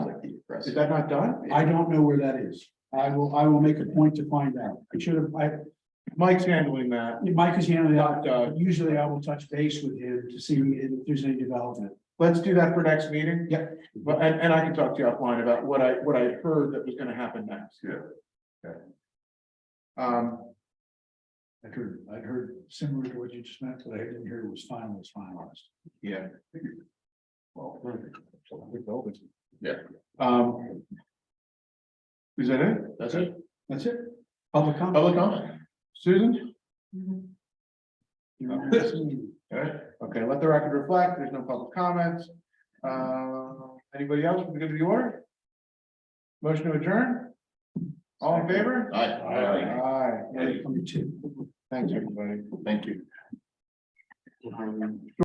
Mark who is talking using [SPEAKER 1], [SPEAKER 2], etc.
[SPEAKER 1] Yes.
[SPEAKER 2] Is that not done? I don't know where that is. I will, I will make a point to find out. I should have, I,
[SPEAKER 1] Mike's handling that.
[SPEAKER 2] Mike is handling
[SPEAKER 1] Not
[SPEAKER 2] that.
[SPEAKER 1] Doug.
[SPEAKER 2] Usually I will touch base with him to see if there's any development.
[SPEAKER 1] Let's do that for next meeting.
[SPEAKER 2] Yeah.
[SPEAKER 1] But, and, and I can talk to you offline about what I, what I heard that was gonna happen next.
[SPEAKER 3] Yeah.
[SPEAKER 1] Okay. Um,
[SPEAKER 2] I'd heard, I'd heard similar to what you just meant, but I didn't hear it was final, was finalized.
[SPEAKER 1] yeah.
[SPEAKER 3] Yeah.
[SPEAKER 1] Um. Is that it?
[SPEAKER 3] That's it.
[SPEAKER 2] That's it. Public comment.
[SPEAKER 1] Public comment? Susan? Okay, let the record reflect, there's no public comments. Uh, anybody else from the good of the order? Motion to adjourn? All in favor?
[SPEAKER 3] Aye.
[SPEAKER 1] Aye.
[SPEAKER 2] Number two.
[SPEAKER 1] Thanks, everybody.
[SPEAKER 3] Thank you.